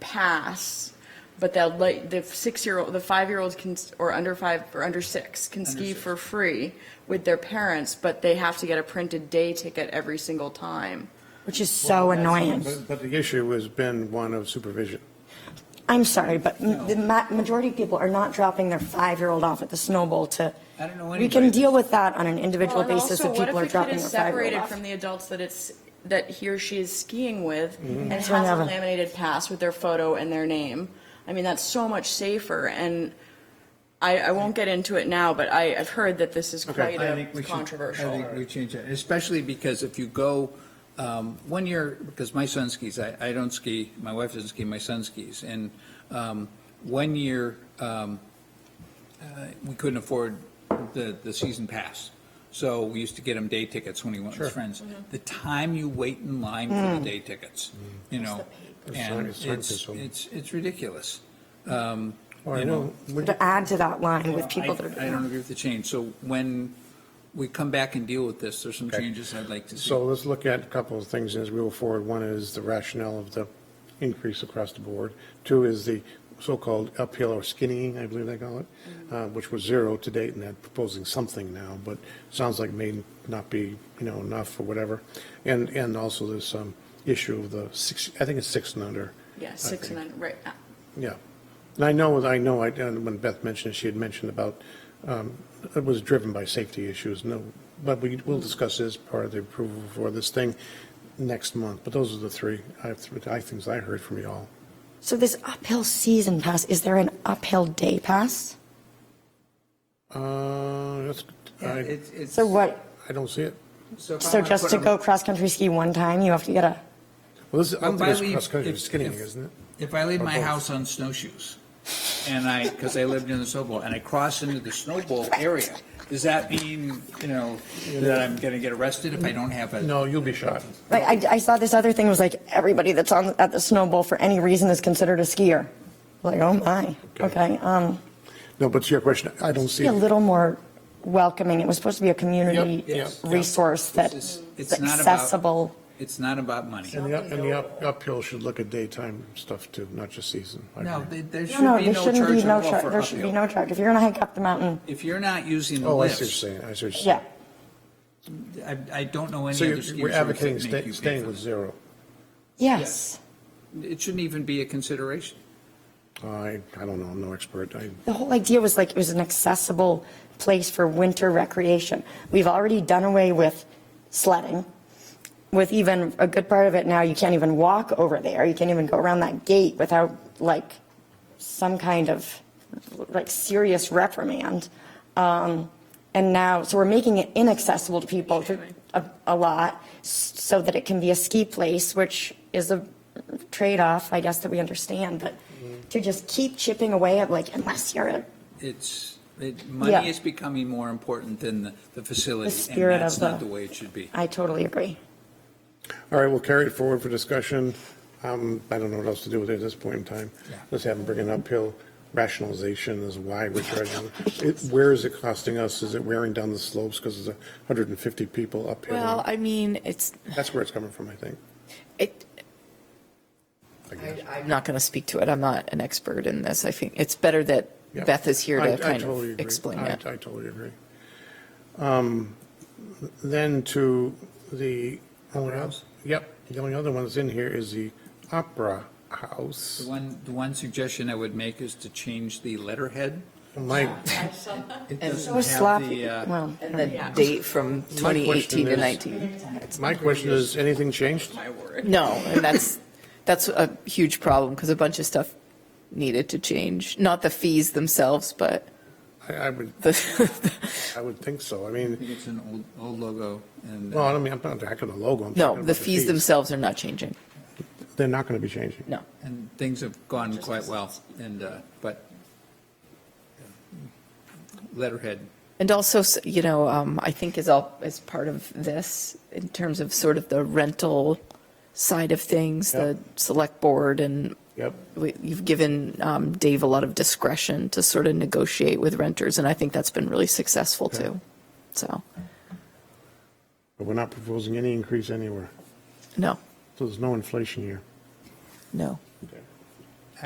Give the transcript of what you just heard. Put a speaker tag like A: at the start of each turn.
A: pass, but they'll let, the six-year-old, the five-year-olds can, or under five, or under six, can ski for free with their parents, but they have to get a printed day ticket every single time.
B: which is so annoying.
C: But- But the issue has been one of supervision.
B: I'm sorry, but m- the ma- majority of people are not dropping their five-year-old off at the snowball to.
D: I don't know
B: We can
D: anybody
B: deal with that on an individual
A: Well, and
B: basis
A: also,
B: if people
A: what
B: are
A: if the kid
B: dropping
A: is
B: their five-year-old
A: separated
B: off.
A: from the adults that it's, that he or she is skiing with
D: Mm-hmm.
A: and has
B: So
A: a
B: never-
A: laminated pass with their photo and their name? I mean, that's so much safer and I, I won't get into it now, but I, I've heard that this is quite
D: I
A: a
D: think we should- I
A: controversial.
D: think we change that, especially because if you go, um, one year, because my son skis, I, I don't ski, my wife doesn't ski, my son skis. And, um, one year, um, uh, we couldn't afford the, the season pass. So we used to get him day tickets when he went with his friends. The time you wait in line for the day tickets, you know,
C: the pain.
D: and
C: It's time- it's
D: it's,
C: time consuming.
D: it's, it's ridiculous.
C: Or,
D: You know,
C: would-
B: To add to that line
D: Well,
B: with people that
D: I I don't
B: are.
D: agree with the change. So when we come back and deal with this, there's some changes I'd like to see.
C: So let's look at a couple of things as we go forward. One is the rationale of the increase across the board. Two is the so-called uphill or skinnying, I believe they call it,
A: Mm-hmm.
C: uh, which was zero to date, and they're proposing something now, but sounds like may not be, you know, enough or whatever. And, and also this um, issue of the six, I think it's six and under.
A: Yeah, six and then, right, uh,
C: Yeah. And I know, I know, I, and when Beth mentioned, it, she had mentioned about, um, it was driven by safety issues, no, but we will discuss this part of the approval for this thing next month. But those are the three, I, I things I heard from you all.
B: So this uphill season pass, is there an uphill day pass?
C: Uh, that's,
D: Yeah,
C: I,
D: it's- it's-
B: So what,
C: I don't see it.
D: if I
B: so
D: wanna
B: just
D: put
B: to
D: him-
B: go cross-country ski one time, you have to get a,
C: Well, this, I don't
D: If
C: think
D: I
C: it's
D: leave-
C: cross-country,
D: if-
C: it's skinnying,
D: if-
C: isn't it?
D: If I leave
C: Or
D: my
C: both.
D: house on snowshoes and I, because I lived in the snowball, and I cross into the snowball area, does that mean, you know, that I'm going to get arrested if I don't have a?
C: No, you'll be shot.
B: like, I, I saw this other thing, it was like, everybody that's on, at the snowball for any reason is considered a skier. Like, oh my,
C: Okay.
B: okay, um,
C: No, but to your question, I don't see
B: be a
C: it.
B: little more welcoming, it was supposed to be a
C: Yep,
B: community
C: yep, yep.
B: resource
D: It's-
B: that's
D: it's not about-
B: accessible.
D: It's not about money.
C: And the, up- and the up- uphill should look at daytime stuff too, not just season. I
D: No,
C: agree.
D: there- there
B: No,
D: should
B: no,
D: be
B: there
D: no
B: shouldn't be
D: charge
B: no
D: at all
B: truck,
D: for
B: there should be
D: uphill.
B: no truck. If you're gonna hike up the mountain,
D: If you're not using the
C: Oh, I see
D: lifts,
C: what you're saying, I see what you're saying.
B: yeah,
D: I, I don't know any
C: So
D: other skiers.
C: you're-
D: who
C: we're
D: would
C: advocating
D: make you
C: sta-
D: pay
C: staying
D: for
C: with
D: that.
C: zero.
B: yes.
D: It shouldn't even be a consideration.
C: I, I don't know, I'm no expert. I,
B: The whole idea was like, it was an accessible place for winter recreation. We've already done away with sledding. With even a good part of it now, you can't even walk over there. You can't even go around that gate without like some kind of like serious reprimand. Um, and now, so we're making it inaccessible to people to- a, a lot s- so that it can be a ski place, which is a trade-off, I guess, that we understand, but to just keep chipping away at like, unless you're a
D: It's, it,
B: Yeah.
D: money is becoming more important than the, the facility, and
B: spirit
D: that's
B: of
D: not the
B: the-
D: way it should be.
B: I totally agree.
C: All right, we'll carry it forward for discussion. Um, I don't know what else to do with it at this point in time.
D: Yeah.
C: Let's have them bring an uphill rationalization as why we're charging. It, where is it costing us? Is it wearing down the slopes because there's hundred and fifty people uphill?
E: Well, I mean, it's,
C: That's where it's coming from, I think.
E: it,
C: I guess.
E: I- I'm not going to speak to it. I'm not an expert in this. I think it's better that
C: Yeah.
E: Beth is here
C: I- I
E: to kind
C: totally
E: of
C: agree.
E: explain
C: I-
E: that.
C: I totally agree. Um, Then to the, only
D: House?
C: yep, the only other one that's in here is the Opera House.
D: The one, the one suggestion I would make is to change the letterhead.
C: My,
D: It
E: And-
D: doesn't
B: So
D: have
B: sloppy,
D: the, uh,
B: well,
E: And the date from 2018 to
C: is-
E: 19.
C: my question is, anything changed?
E: No, and that's, that's a huge problem because a bunch of stuff needed to change. Not the fees themselves, but
C: I, I would,
E: the,
C: I would think so. I
D: I
C: mean,
D: think it's an old, old logo, and
C: well,
D: uh,
C: I don't mean, I'm not attacking the logo. I'm talking
E: no,
C: about
E: the fees themselves are not changing.
C: They're not going to be changing.
E: No.
D: and things have gone quite well, and, uh, but uh, letterhead,
E: And also, s- you know, um, I think is all, is part of this in terms of sort of the rental side of things, the select board and
C: Yep.
E: we- you've given um, Dave a lot of discretion to sort of negotiate with renters, and I think that's been really successful too. So,
C: But we're not proposing any increase anywhere.
E: no,
C: So there's no inflation here.
E: no.
C: Okay.